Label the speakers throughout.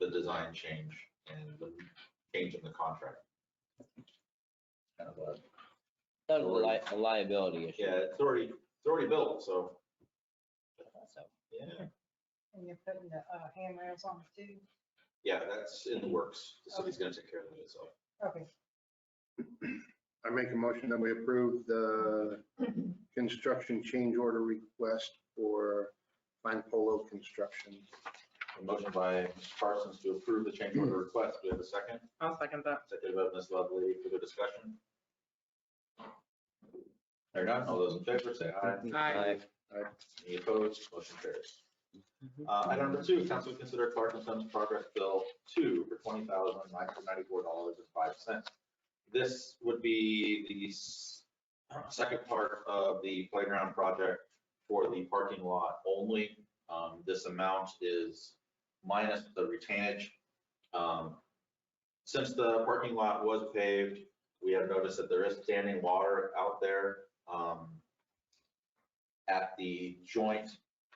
Speaker 1: the design change and the change in the contract. Kind of a-
Speaker 2: That was a li- a liability issue.
Speaker 1: Yeah, it's already, it's already built, so,
Speaker 2: So,
Speaker 1: yeah,
Speaker 3: And you're putting the uh, handrails on it too?
Speaker 1: yeah, that's in the works. So he's gonna take care of it, so.
Speaker 3: Okay.
Speaker 4: I make a motion that we approve the construction change order request for Fine Polo Construction.
Speaker 1: A motion by Ms. Parsons to approve the change order request. Do we have a second?
Speaker 5: I'll second that.
Speaker 1: Second by Ms. Lovely for the discussion. There none, all those in favor say aye.
Speaker 5: Aye.
Speaker 1: Any opposed? Motion carries. Uh, Item number two, council to consider Clark and Sons progress bill two for twenty thousand nine hundred ninety-four dollars and five cents. This would be the s- second part of the playground project for the parking lot only. Um, This amount is minus the retainage. Um, Since the parking lot was paved, we have noticed that there is standing water out there. Um, at the joint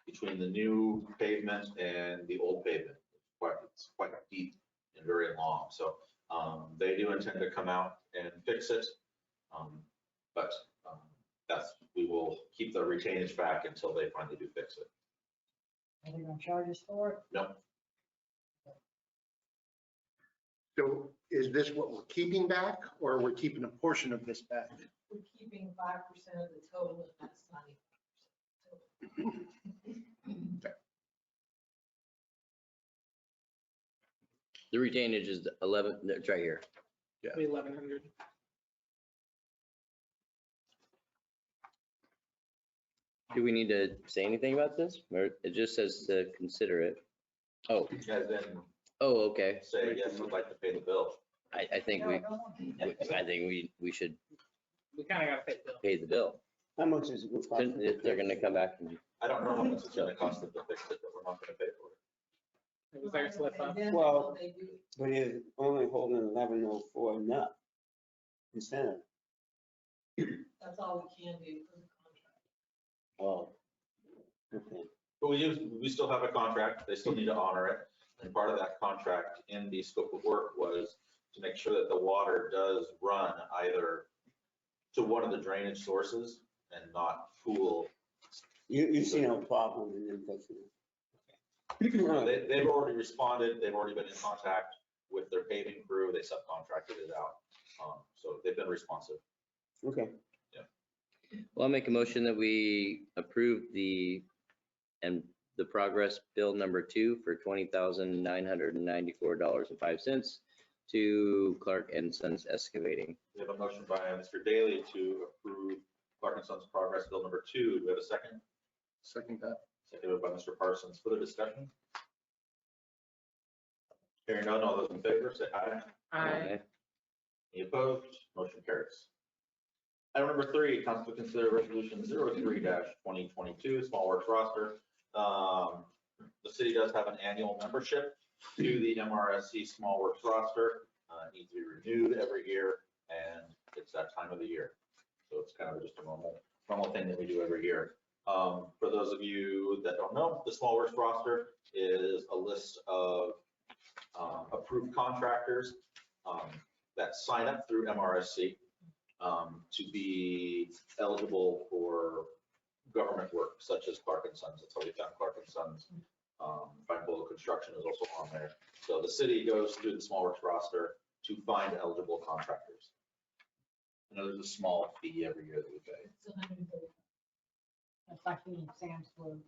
Speaker 1: between the new pavement and the old pavement. It's Quite, it's quite deep and very long, so, um, they do intend to come out and fix it. Um, but, um, that's, we will keep the retainage back until they finally do fix it.
Speaker 3: Are they gonna charge us for it?
Speaker 4: So is this what we're keeping back or we're keeping a portion of this back?
Speaker 6: we're keeping five percent of the total, and that's not even.
Speaker 2: The retainage is the 11, no, it's right here.
Speaker 4: Yeah.
Speaker 5: The eleven hundred.
Speaker 2: Do we need to say anything about this? Or it just says to consider it? Oh,
Speaker 1: You guys then
Speaker 2: oh, okay.
Speaker 1: say, yes, we'd like to pay the bill.
Speaker 2: I, I think
Speaker 3: No,
Speaker 2: we,
Speaker 3: I don't want to.
Speaker 2: I think we, we should
Speaker 5: We kind of got to pay the bill.
Speaker 2: pay the bill.
Speaker 7: How much is it?
Speaker 2: Then If they're gonna come back and,
Speaker 1: I don't know how much it's gonna cost them to fix it, but we're not gonna pay for it.
Speaker 5: It was their slip up.
Speaker 6: And then
Speaker 7: Well-
Speaker 6: They do
Speaker 7: But it's only holding eleven oh four nut instead of,
Speaker 6: That's all we can do for the contract.
Speaker 7: oh. Okay.
Speaker 1: But we use, we still have a contract, they still need to honor it, and part of that contract in the scope of work was to make sure that the water does run either to one of the drainage sources and not pool.
Speaker 7: You, you see no problem in them fixing it? All right.
Speaker 1: They, they've already responded, they've already been in contact with their paving crew, they subcontracted it out, um, so they've been responsive.
Speaker 7: Okay.
Speaker 2: well, I'll make a motion that we approve the, and the progress bill number two for $20,994.05 to Clark and Sons Excavating.
Speaker 1: We have a motion by Mr. Daly to approve Clark and Sons Progress Bill Number Two, do we have a second?
Speaker 4: Second that.
Speaker 1: Seconded by Mr. Parsons. Further discussion? Hearing none, all those in favor say aye.
Speaker 5: Aye.
Speaker 1: Any opposed? Motion carries. Item number three, council to consider resolution 03-2022, small works roster. Um, The city does have an annual membership to the MRSC small works roster. Uh, it Needs to be renewed every year, and it's that time of the year. So it's kind of just a normal, normal thing that we do every year. Um, For those of you that don't know, the small works roster is a list of um, approved contractors. um, that sign up through MRSC um, to be eligible for government work such as Clark and Sons. That's how we found Clark and Sons. Um, Fine Bowl Construction is also on there. So the city goes through the small works roster to find eligible contractors. I know there's a small fee every year that we pay.
Speaker 6: It's a hundred and thirty.
Speaker 3: It's like you need Sam's Club.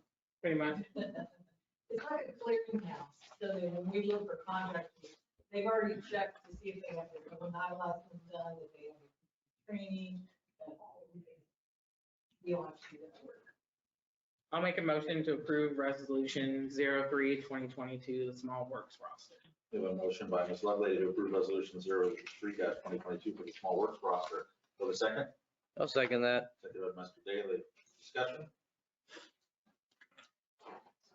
Speaker 5: Pretty much.
Speaker 6: It's like a clearinghouse, so that when we look for contractors, they've already checked to see if they have their own I license done, if they have training. that We don't have to do that work.
Speaker 5: I'll make a motion to approve resolution 03-2022, the small works roster.
Speaker 1: We have a motion by Ms. Lovely to approve resolution 03-2022 for the small works roster. Do we have a second?
Speaker 2: I'll second that.
Speaker 1: Seconded by Mr. Daly. Discussion?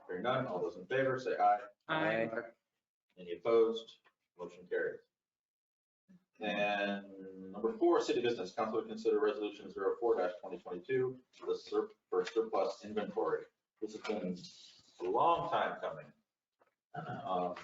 Speaker 1: Hearing none, all those in favor say aye.
Speaker 5: Aye.
Speaker 1: Any opposed? Motion carries. And number four, city business council to consider resolution 04-2022 for the sur- for surplus inventory. This has been a long time coming. Um,